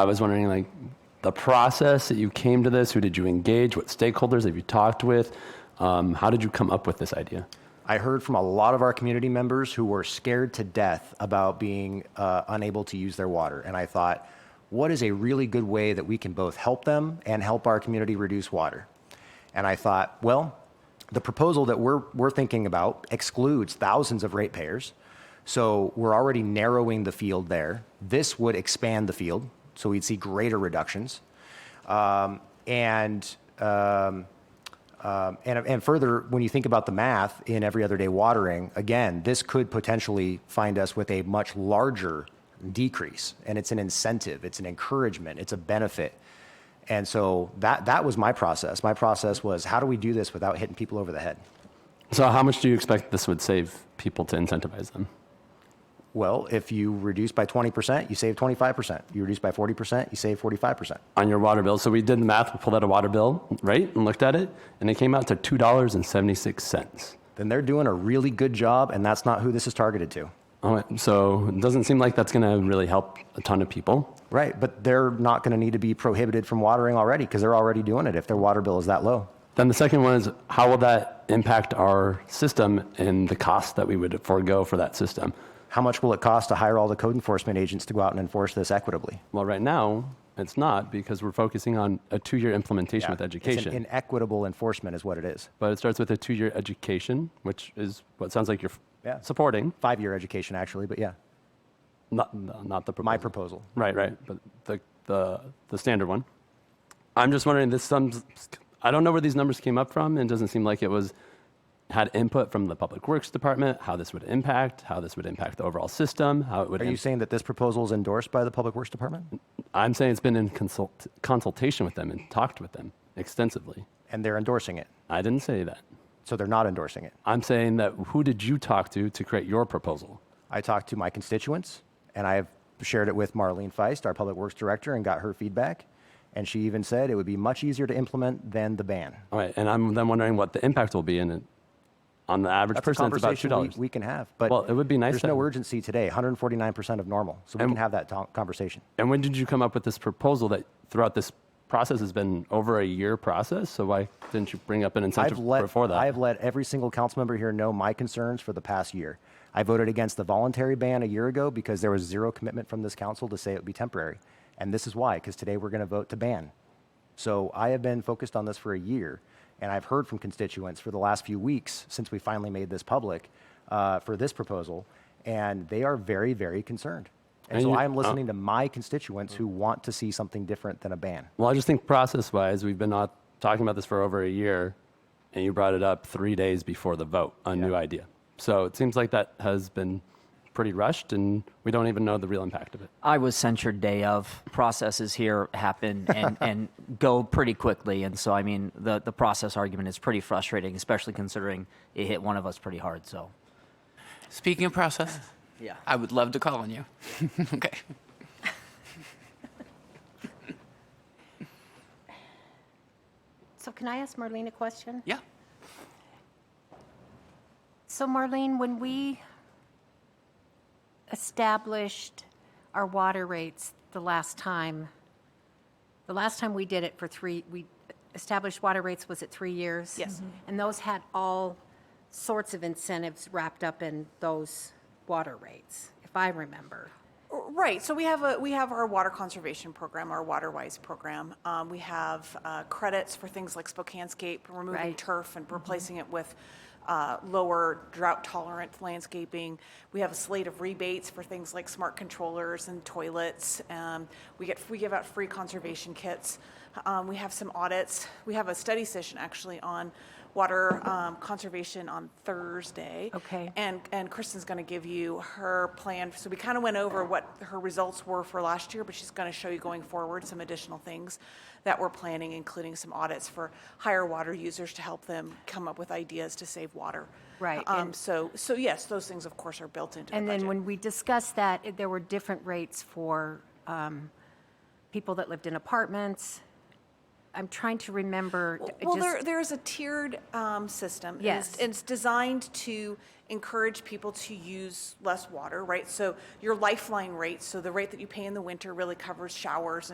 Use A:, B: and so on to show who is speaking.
A: I was wondering, like, the process that you came to this. Who did you engage? What stakeholders have you talked with? Um, how did you come up with this idea?
B: I heard from a lot of our community members who were scared to death about being uh, unable to use their water. And I thought, what is a really good way that we can both help them and help our community reduce water? And I thought, well, the proposal that we're, we're thinking about excludes thousands of ratepayers. So we're already narrowing the field there. This would expand the field, so we'd see greater reductions. Um, and uh, um, and, and further, when you think about the math in every other day watering, again, this could potentially find us with a much larger decrease. And it's an incentive, it's an encouragement, it's a benefit. And so that, that was my process. My process was how do we do this without hitting people over the head?
A: So, how much do you expect this would save people to incentivize them?
B: Well, if you reduce by 20%, you save 25%. You reduce by 40%, you save 45%.
A: on your water bill. So we did the math, we pulled out a water bill, right, and looked at it, and it came out to two dollars and seventy six cents.
B: Then they're doing a really good job, and that's not who this is targeted to.
A: So it doesn't seem like that's going to really help a ton of people.
B: Right, but they're not going to need to be prohibited from watering already because they're already doing it if their water bill is that low.
A: Then the second one is how will that impact our system and the cost that we would forego for that system?
B: How much will it cost to hire all the code enforcement agents to go out and enforce this equitably?
A: Well, right now it's not because we're focusing on a two year implementation with
B: It's
A: education.
B: an inequitable enforcement is what it is.
A: but it starts with a two year education, which is what sounds like you're f-
B: Yeah.
A: supporting,
B: Five year education, actually, but yeah,
A: not, not the proposal.
B: my proposal.
A: Right, right. But the, the, the standard one. I'm just wondering, this sums, I don't know where these numbers came up from, and it doesn't seem like it was, had input from the Public Works Department, how this would impact, how this would impact the overall system, how it would.
B: Are you
A: im-
B: saying that this proposal is endorsed by the Public Works Department?
A: I'm saying it's been in consult, consultation with them and talked with them extensively.
B: And they're endorsing it.
A: I didn't say that.
B: So they're not endorsing it.
A: I'm saying that who did you talk to to create your proposal?
B: I talked to my constituents and I've shared it with Marlene Feist, our Public Works Director, and got her feedback. And she even said it would be much easier to implement than the ban.
A: All right, and I'm then wondering what the impact will be in it. On the average
B: That's
A: person,
B: a
A: it's about
B: conversation
A: two dollars.
B: We, we can have. But
A: Well, it would be nice
B: There's
A: to-
B: no urgency today. 149% of normal, so we
A: And-
B: can have that to- conversation.
A: And when did you come up with this proposal that throughout this process has been over a year process? So why didn't you bring up an incentive
B: I've let
A: before that?
B: I've let every single council member here know my concerns for the past year. I voted against the voluntary ban a year ago because there was zero commitment from this council to say it would be temporary, and this is why. Because today we're going to vote to ban. So I have been focused on this for a year, and I've heard from constituents for the last few weeks since we finally made this public uh, for this proposal, and they are very, very concerned. And,
A: And
B: so
A: you-
B: I'm
A: uh,
B: listening to my constituents who want to see something different than a ban.
A: well, I just think process wise, we've been not talking about this for over a year, and you brought it up three days before the vote, a new idea. So it seems like that has been pretty rushed, and we don't even know the real impact of it.
C: I was censured day of. Processes here happen and, and go pretty quickly. And so, I mean, the, the process argument is pretty frustrating, especially considering it hit one of us pretty hard. So,
D: Speaking of process,
C: yeah.
D: I would love to call on you. okay.
E: So can I ask Marlene a question?
D: Yeah.
E: So Marlene, when we established our water rates the last time, the last time we did it for three, we established water rates, was it three years? Yes. And those had all sorts of incentives wrapped up in those water rates, if I remember.
F: Right. So we have a we have our water conservation program, our WaterWise program. Um, we have uh, credits for things like Spokanescape, removing
E: Right. Mm-hmm.
F: turf and replacing it with uh, lower drought tolerant landscaping. We have a slate of rebates for things like smart controllers and toilets. Um, we get we give out free conservation kits. Um, we have some audits. We have a study session actually on water um, conservation on Thursday.
E: Okay.
F: And, and Kristen's going to give you her plan. So we kind of went over what her results were for last year, but she's going to show you going forward some additional things that we're planning, including some audits for higher water users to help them come up with ideas to save water.
E: Right,
F: Um,
E: and-
F: so, so yes, those things of course are built into the
E: And then
F: budget.
E: when we discussed that, it- there were different rates for um, people that lived in apartments. I'm trying to remember. it
F: Well,
E: just-
F: there, there is a tiered um, system. and it's-
E: Yes.
F: and It's designed to encourage people to use less water, right? So your lifeline rate, so the rate that you pay in the winter really covers showers